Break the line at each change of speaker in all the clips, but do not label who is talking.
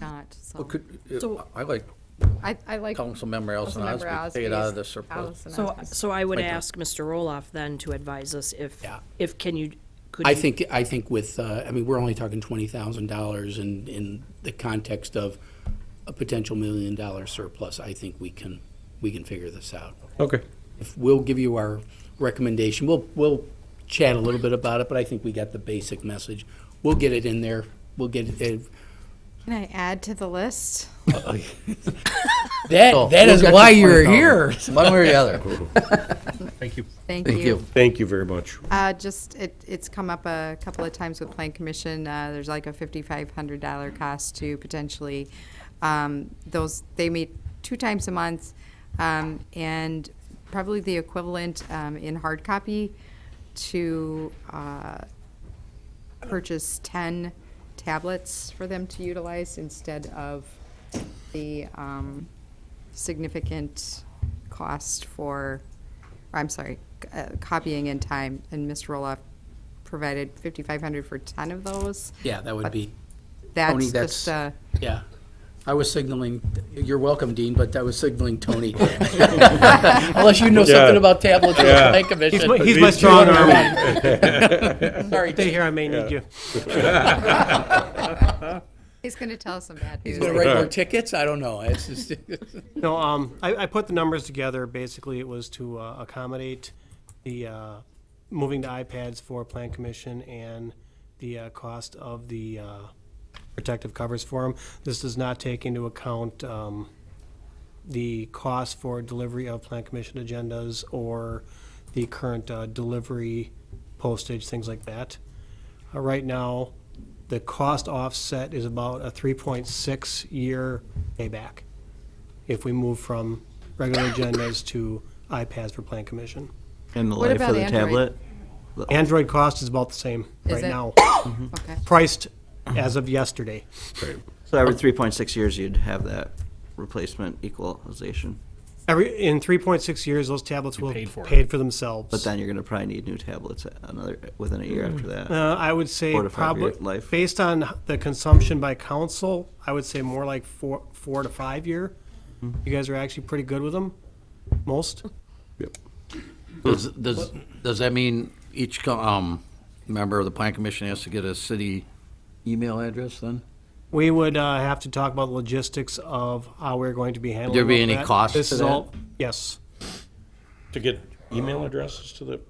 not, so.
Well, could, uh,
So-
I like
I, I like.
Councilmember Allison
Councilmember
Osby, pay it out of the
Osby's-
surplus.
Allison
So,
Osby's.
so I would
Like that.
ask Mr. Roloff then to advise us if,
Yeah.
if can you, could
I
you?
think, I think with, uh, I mean, we're only talking twenty thousand dollars in, in the context of a potential million dollar surplus. I think we can, we can figure this out.
Okay.
If We'll give you our recommendation. We'll, we'll chat a little bit about it, but I think we got the basic message. We'll get it in there. We'll get it.
Can I add to the list?
That, that is
Oh, We'll get
why
to
you're
20,000,
here.
One way or the other.
Thank
Thank
you.
you.
Thank you very much.
Uh, just, it, it's come up a couple of times with Plan Commission, uh, there's like a fifty-five hundred dollar cost to potentially, um, those, they meet two times a month, um, and probably the equivalent, um, in hard copy to, uh, purchase ten tablets for them to utilize instead of the, um, significant cost for, or I'm sorry, c- uh, copying in time, and Mr. Roloff provided 5,500 for 10 of those.
Yeah, that would
But
be, Tony,
That's
that's-
just, uh,
yeah. I was signaling, you're welcome, Dean, but I was signaling Tony. Unless you know something
Yeah.
about tablets or
Yeah.
the Plan Commission.
He's my, he's my strong arm.
Sorry,
Stay here, I may need you.
he's going to tell us some bad news.
He's gonna write more tickets? I don't know. It's just,
No, um, I, I put the numbers together, basically it was to uh, accommodate the, uh, moving to iPads for Plan Commission and the, uh, cost of the, uh, protective covers for them. This does not take into account, um, the cost for delivery of Plan Commission agendas or the current, uh, delivery postage, things like that. Uh, Right now, the cost offset is about a three point six year payback if we move from regular agendas to iPads for Plan Commission.
And the
What
life
about
of the
Android?
tablet?
Android cost is about the same
Is
right
it?
now,
Okay.
priced as of yesterday.
So every 3.6 years, you'd have that replacement equalization,
Every, in three point six years, those tablets will have
for
paid for themselves.
but then you're going to probably need new tablets another within a year after that.
Uh, I would say
Four to five
probably,
year life.
based on the consumption by council, I would say more like four, four to five year.
Mm-hmm.
You guys are actually pretty good with them, most.
Does, does, does that mean each, co- um, member of the plan commission has to get a city email address then?
We would uh, have to talk about the logistics of how we're going to be handling.
there be
all
any
that.
cost
This
to
is
that?
all- Yes,
To get email addresses to the,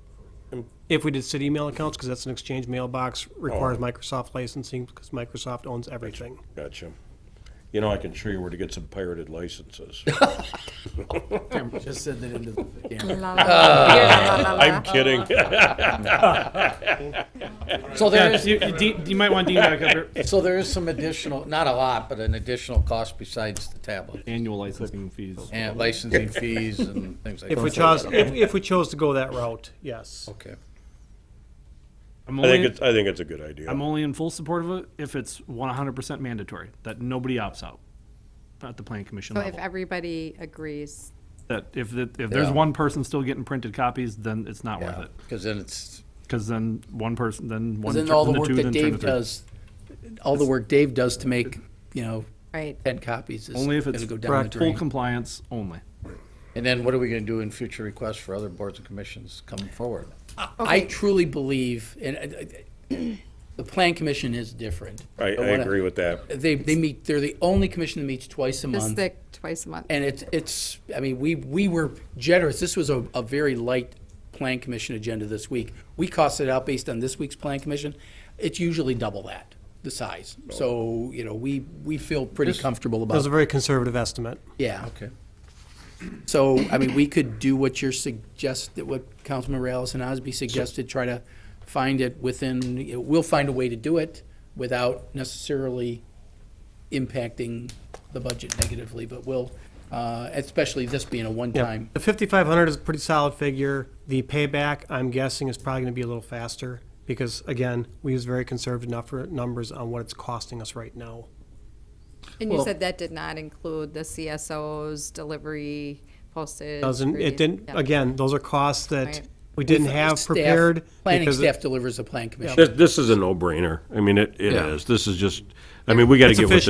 if we did city email accounts, because that's an exchange mailbox, requires Microsoft licensing because Microsoft owns everything.
gotcha. You know, I can show you where to get some pirated licenses.
just send it into the camera.
La, la, la, la, la, la.
Uh, I'm kidding.
So there is,
you, you, Dean- you might want Dean back up here.
so there is some additional, not a lot, but an additional cost besides the tablet
Annual licensing fees.
and licensing fees and things like that. Oh,
If we chose, if, if we chose to go that route, yes.
Okay.
I'm
I think
only,
it's, I think it's a good idea.
I'm only in full support of it if it's 100% mandatory, that nobody opts out at the plan commission
So if
level.
everybody agrees,
that if, the, if there's
Yeah.
one person still getting printed copies, then it's not worth it.
Because then it's,
Because then one person, then one,
Then
tur-
all
then
the work
two,
that
then turn to
Dave
three.
does, all the work Dave does to make, you know,
right,
ten copies is
Only
gonna
if it's
go down the
correct.
Full
drain.
compliance only.
and then what are we gonna do in future requests for other boards and commissions coming forward?
I truly believe, and I- I- the Plan Commission is different.
I, I
wanna-
agree with that.
They, they meet, they're the only commission that meets twice a month.
just the twice a month.
And it's, it's, I mean, we, we were generous. This was a, a very light plan commission agenda this week. We costed it out based on this week's plan commission. It's usually double that, the size. So, you know, we, we feel pretty comfortable
That was
about,
a very conservative estimate.
yeah.
Okay.
So, I mean, we could do what you're suggest, that what Councilmember Allison Osby suggested, try to find it within, you know, we'll find a way to do it without necessarily impacting the budget negatively, but we'll, uh, especially this being a
Yeah,
one-time.
The fifty-five hundred is a pretty solid figure. The payback, I'm guessing, is probably gonna be a little faster, because again, we use very conservative nuffer- numbers on what it's costing us right now.
And you
Well-
said that did not include the CSOs, delivery, postage.
Doesn't, it
radi-
didn't,
yeah.
again, those are costs that
Right.
we didn't have
Staff-
prepared.
Planning
because it-
staff delivers the plan commission.
This, this is a no-brainer. I mean, it, it is. This is just, I mean, we gotta
It's
get with the